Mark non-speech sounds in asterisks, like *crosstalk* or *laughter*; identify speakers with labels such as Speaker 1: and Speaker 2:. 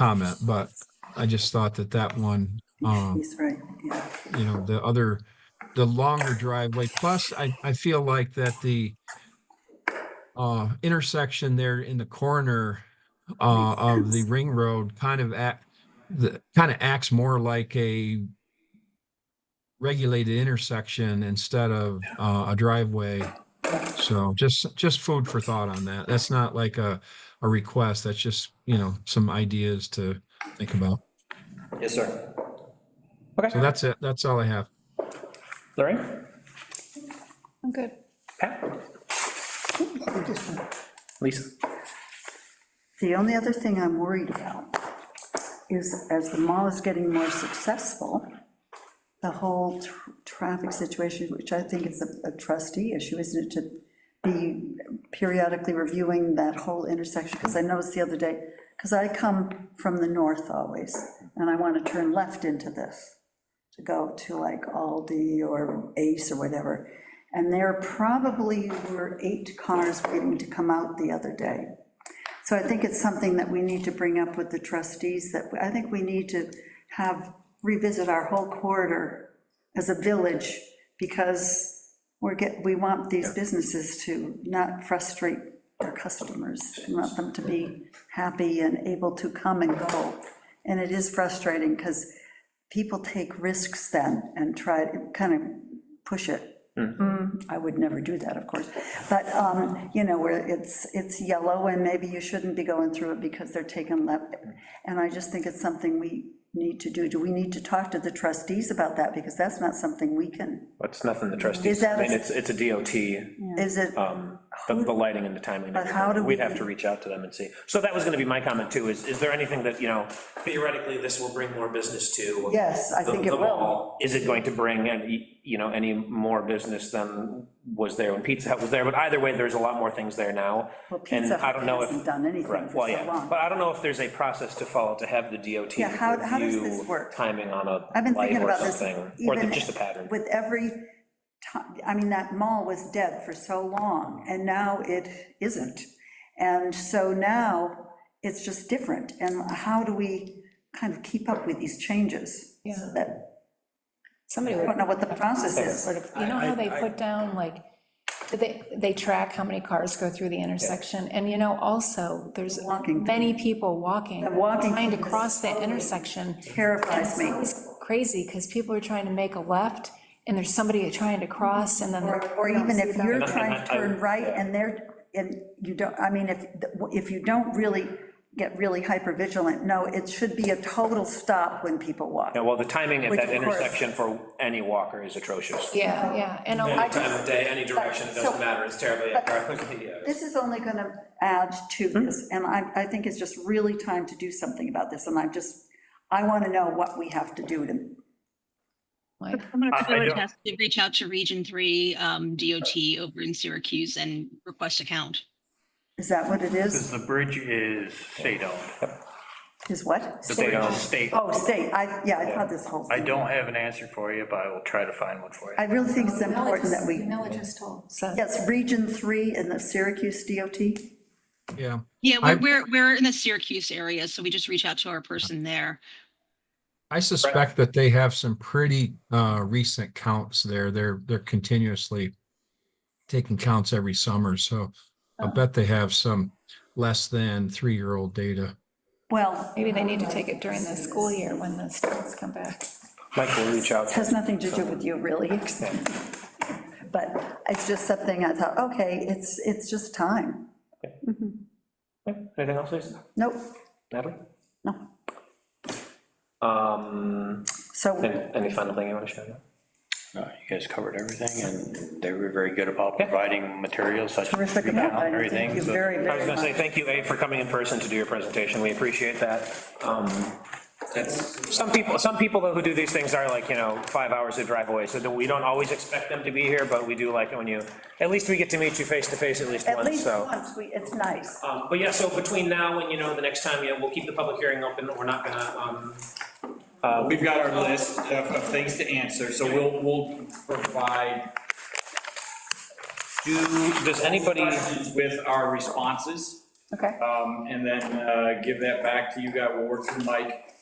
Speaker 1: comment, but I just thought that that one, um,
Speaker 2: He's right, yeah.
Speaker 1: you know, the other, the longer driveway, plus I, I feel like that the uh, intersection there in the corner uh, of the ring road kind of act, the, kind of acts more like a regulated intersection instead of uh, a driveway. So just, just food for thought on that. That's not like a, a request. That's just, you know, some ideas to think about.
Speaker 3: Yes, sir.
Speaker 1: So
Speaker 3: Okay,
Speaker 1: that's it. That's all I have.
Speaker 3: Lorraine?
Speaker 4: I'm good.
Speaker 3: Pat? Lisa?
Speaker 2: The only other thing I'm worried about is as the mall is getting more successful, the whole tr- traffic situation, which I think is a- a trustee issue, isn't it, to be periodically reviewing that whole intersection? Because I noticed the other day, because I come from the north always, and I want to turn left into this, to go to like Aldi or Ace or whatever. And there probably were eight cars waiting to come out the other day. So I think it's something that we need to bring up with the trustees, that I think we need to have, revisit our whole corridor as a village, because we're get, we want these businesses to not frustrate their customers. We want them to be happy and able to come and go. And it is frustrating, because people take risks then and try to kind of push it. I would never do that, of course. But, um, you know, where it's, it's yellow and maybe you shouldn't be going through it because they're taking left. And I just think it's something we need to do. Do we need to talk to the trustees about that? Because that's not something we can,
Speaker 3: It's nothing the trustees,
Speaker 2: Is that
Speaker 3: I
Speaker 2: a-
Speaker 3: mean, it's, it's a DOT,
Speaker 2: is it?
Speaker 3: um, the the lighting and the timing. and
Speaker 2: But how
Speaker 3: everything.
Speaker 2: do
Speaker 3: We'd
Speaker 2: we-
Speaker 3: have to reach out to them and see. So that was gonna be my comment too, is, is there anything that, you know,
Speaker 5: theoretically, this will bring more business to.
Speaker 2: Yes, I
Speaker 5: the-
Speaker 2: think it
Speaker 5: the
Speaker 2: will.
Speaker 5: mall.
Speaker 3: is it going to bring, any you know, any more business than was there when Pizza Hut was there? But either way, there's a lot more things there now.
Speaker 2: Well,
Speaker 3: And
Speaker 2: Pizza
Speaker 3: I
Speaker 2: Hut
Speaker 3: don't know if.
Speaker 2: hasn't done anything
Speaker 3: Right,
Speaker 2: for
Speaker 3: well,
Speaker 2: so
Speaker 3: yeah,
Speaker 2: long.
Speaker 3: but I don't know if there's a process to follow to have the DOT
Speaker 2: Yeah, how- how does this
Speaker 3: review
Speaker 2: work?
Speaker 3: timing on
Speaker 2: I've
Speaker 3: a
Speaker 2: been
Speaker 3: light
Speaker 2: thinking
Speaker 3: or
Speaker 2: about this.
Speaker 3: something, or the-
Speaker 2: even
Speaker 3: just a pattern.
Speaker 2: With every time, I mean, that mall was dead for so long, and now it isn't. And so now, it's just different, and how do we kind of keep up with these changes?
Speaker 4: Yeah.
Speaker 2: That-
Speaker 4: Somebody
Speaker 2: I
Speaker 4: would,
Speaker 2: don't know what the process
Speaker 4: sort
Speaker 2: is.
Speaker 4: of, you know how they put down, like, they, they track how many cars go through the intersection, and you know, also, there's
Speaker 2: Walking.
Speaker 4: many people walking.
Speaker 2: And walking
Speaker 4: Trying to
Speaker 2: is
Speaker 4: cross that intersection.
Speaker 2: Terrifies me.
Speaker 4: It's crazy, because people are trying to make a left, and there's somebody trying to cross, and then.
Speaker 2: Or
Speaker 4: they're-
Speaker 2: or even if you're
Speaker 3: And I-
Speaker 2: trying
Speaker 3: and
Speaker 2: to
Speaker 3: I- I-
Speaker 2: turn right
Speaker 3: yeah.
Speaker 2: and they're, and you don't, I mean, if, if you don't really get really hyper vigilant, no, it should be a total stop when people walk.
Speaker 3: Yeah, well, the timing at
Speaker 2: Which,
Speaker 3: that
Speaker 2: of course-
Speaker 3: intersection for any walker is atrocious.
Speaker 4: Yeah, yeah, and I
Speaker 5: Any
Speaker 4: just,
Speaker 5: time of day, any direction, it
Speaker 2: So-
Speaker 5: doesn't matter, it's terribly, yeah.
Speaker 2: This is only going to add to this, and I, I think it's just really time to do something about this, and I'm just, I want to know what we have to do to,
Speaker 4: like,
Speaker 6: I'm going
Speaker 3: I- I
Speaker 6: to forward
Speaker 3: don't-
Speaker 6: that to reach out to Region 3 um, DOT over in Syracuse and request account.
Speaker 2: is that what it
Speaker 7: Because
Speaker 2: is?
Speaker 7: the bridge is state-owned.
Speaker 2: Is what?
Speaker 7: The bridge
Speaker 3: State-owned.
Speaker 7: is state.
Speaker 2: Oh, state, I, yeah, I thought this whole
Speaker 7: I
Speaker 2: thing.
Speaker 7: don't have an answer for you, but I will try to find one for you.
Speaker 2: I really think it's important that we,
Speaker 4: Mela just told, so.
Speaker 2: yes, Region 3 and the Syracuse DOT,
Speaker 1: Yeah.
Speaker 6: Yeah,
Speaker 1: I-
Speaker 6: we're, we're, we're in the Syracuse area, so we just reach out to our person there.
Speaker 1: I suspect that they have some pretty uh recent counts there. They're they're continuously taking counts every summer, so I bet they have some less than three-year-old data.
Speaker 2: well,
Speaker 4: Maybe they need to take it during the school year when the students come back.
Speaker 3: Mike will reach out.
Speaker 2: it has nothing to do with you, really. *laughs* But it's just something I thought, okay, it's, it's just time.
Speaker 3: Anything else, Lisa?
Speaker 2: Nope,
Speaker 3: Natalie?
Speaker 2: no,
Speaker 3: Um,
Speaker 2: so,
Speaker 3: any, any final thing you want to share?
Speaker 7: Uh, You guys covered everything, and they were very good about providing materials such as
Speaker 2: terrific
Speaker 7: recount
Speaker 2: about
Speaker 7: and
Speaker 2: it, thank
Speaker 7: everything.
Speaker 2: you
Speaker 7: so-
Speaker 2: very,
Speaker 3: I was
Speaker 2: very
Speaker 3: gonna
Speaker 2: much.
Speaker 3: say, thank you, A, for coming in person to do your presentation, we appreciate that. Um, that's- Some people, some people though who do these things are like, you know, five hours to drive away, so that we don't always expect them to be here, but we do like it when you, at least we get to meet you face to face at least
Speaker 2: At
Speaker 3: once,
Speaker 2: least
Speaker 3: so.
Speaker 2: once, we, it's nice.
Speaker 3: Um, But yeah, so between now and, you know, the next time, yeah, we'll keep the public hearing open, we're not gonna, um,
Speaker 8: Uh, We've got our list of, of things to answer, so we'll, we'll provide
Speaker 3: do, does anybody?
Speaker 8: questions with our responses.
Speaker 4: Okay.
Speaker 8: um, and then uh, give that back to you guys, we'll work through Mike.